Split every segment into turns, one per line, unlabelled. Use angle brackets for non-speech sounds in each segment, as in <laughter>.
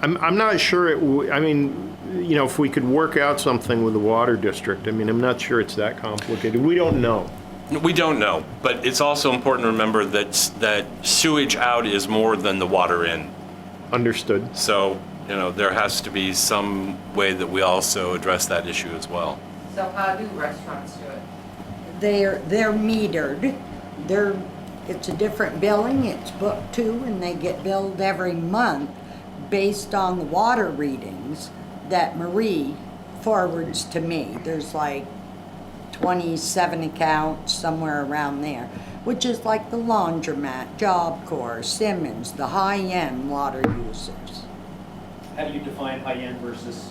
I'm, I'm not sure it, w- I mean, you know, if we could work out something with the water district, I mean, I'm not sure it's that complicated. We don't know.
We don't know, but it's also important to remember that, s- that sewage out is more than the water in.
Understood.
So, you know, there has to be some way that we also address that issue as well.
So how do restaurants do it?
They're, they're metered. They're, it's a different billing, it's book two, and they get billed every month based on the water readings that Marie forwards to me. There's like twenty-seven accounts, somewhere around there, which is like the laundromat, Job Corps, Simmons, the high-end water users.
How do you define high-end versus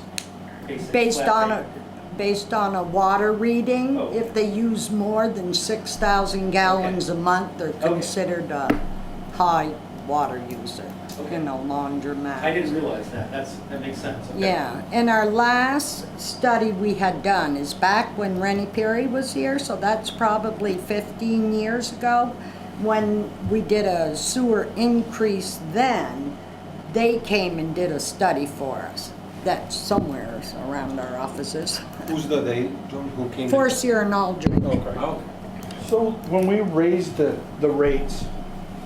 basic?
Based
flat
on
rate?
a, based on a water reading,
Oh.
if they use more than six thousand gallons a month, they're
Okay.
considered a high water user. You
Okay.
know, laundromat.
I didn't realize that, that's, that makes sense, okay.
Yeah, and our last study we had done is back when Rennie Perry was here, so that's probably fifteen years ago. When we did a sewer increase then, they came and did a study for us. That's somewhere around our offices.
Who's the they, John, who came?
Forcier and Aldridge.
Okay.
Oh,
So when we raise the, the rates,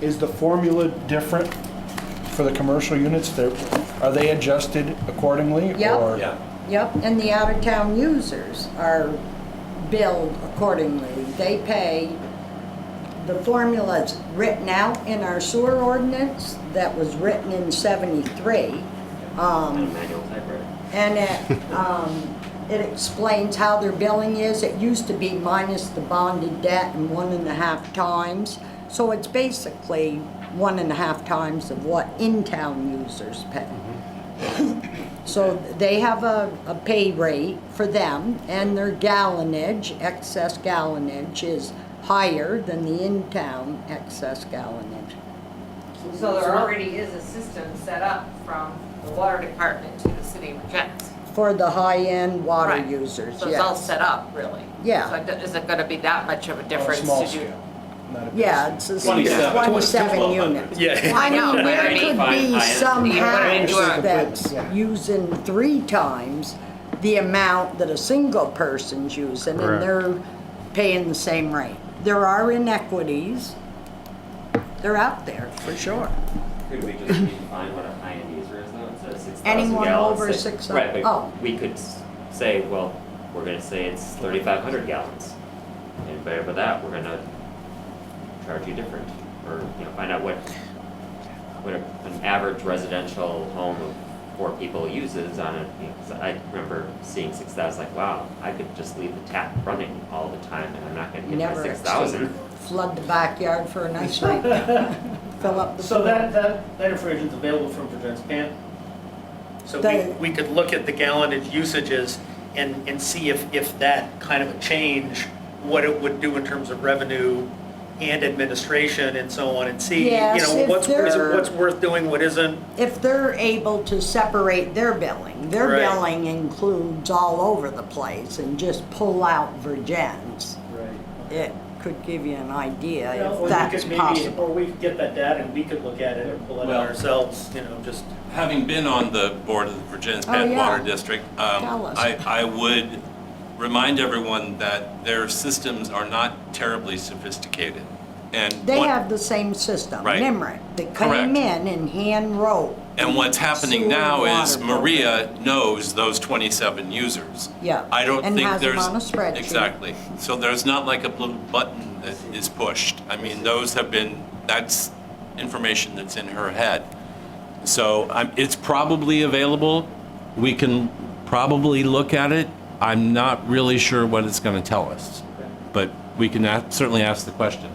is the formula different for the commercial units? They're- Are they adjusted accordingly?
Yep.
or-
yeah.
Yep, and the out-of-town users are billed accordingly. They pay, the formula's written out in our sewer ordinance that was written in seventy-three.
And a
Um,
manual typewriter.
and it, um, it explains how their billing is. It used to be minus the bonded debt and one and a half times. So it's basically one and a half times of what in-town users pay. So they have a, a pay rate for them and their gallonage, excess gallonage is higher than the in-town excess gallonage.
So there already is a system set up from the water department to the city of Regent.
For the high-end water
Right.
users, yes.
So it's all set up, really?
Yeah.
So it do- isn't gonna be that much of a
Or a
difference to do?
small scale? not a big
Yeah,
scale.
it's a
27.
27 units.
Yeah.
I
No,
mean,
but I
there
mean-
could be some
Yeah, but I mean,
house
you are-
that's
Yeah.
using three times the amount that a single person's using,
Correct.
and they're paying the same rate. There are inequities. They're out there, for sure.
Could we just redefine what a high-end user is though, instead of six thousand gallons?
Anyone over
say-
6,000
Right,
oh.
but we could s- say, well, we're gonna say it's thirty-five hundred gallons. And by over that, we're gonna charge you different, or, you know, find out what, what a- an average residential home of four people uses on a, you know, 'cause I remember seeing six thousand, like, wow, I could just leave the tap running all the time and I'm not gonna get my
Never
six thousand.
exceed. Flood the backyard for a
<laughs>
nice rate. Fill up the.
So that, that, that information's available from Virgin's Pan. So
They-
we, we could look at the gallonage usages and, and see if, if that kind of a change, what it would do in terms of revenue and administration and so on, and see, you
Yes,
know,
if
what's, what's
there-
what's worth doing, what isn't.
if they're able to separate their billing, their
Right.
billing includes all over the place and just pull out Virgin's.
Right.
It could give you an idea
Well, we
if that's
could maybe-
possible.
Or we could get that data and we could look at it and pull it
Well-
out ourselves, you know, just.
Having been on the board of the Virginia's
Oh,
Bad
yeah.
Water District, um,
Tell us.
I, I would remind everyone that their systems are not terribly sophisticated. And
They
what-
have the same system,
Right.
Nimerick, that came
Correct.
in and hand wrote.
And what's happening
Sewer
now is
water program.
Maria knows those 27 users.
Yeah,
I don't
and
think
has them
there's.
on a spreadsheet.
Exactly. So there's not like a little button that is pushed. I mean, those have been, that's information that's in her head. So I'm, it's probably available. We can probably look at it. I'm not really sure what it's going to tell us, but we can a- certainly ask the question.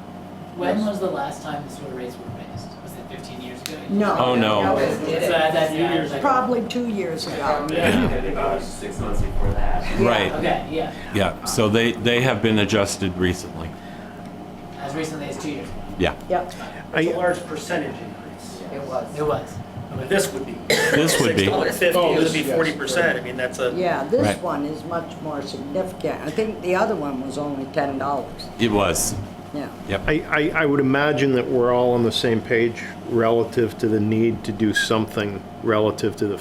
When was the last time the sewer rates were raised? Was it fifteen years ago?
No.
Oh, no.
So that- that's the average, like-
Probably two years ago.
About six months before that.
Right,
Okay, yeah,
yeah. So they, they have been adjusted recently.
as recently as two years ago,
Yeah.
Yep.
It's a
I-
large percentage increase.
It was.
it was.
I mean, this would be.
This would be.
$6.50, it
Oh,
would
this-
be
yes.
forty percent, I mean, that's a.
Yeah, this
Right.
one is much more significant. I think the other one was only ten dollars,
It was.
yeah.
I, I, I would imagine that we're all on the same page relative to the need to do something relative to the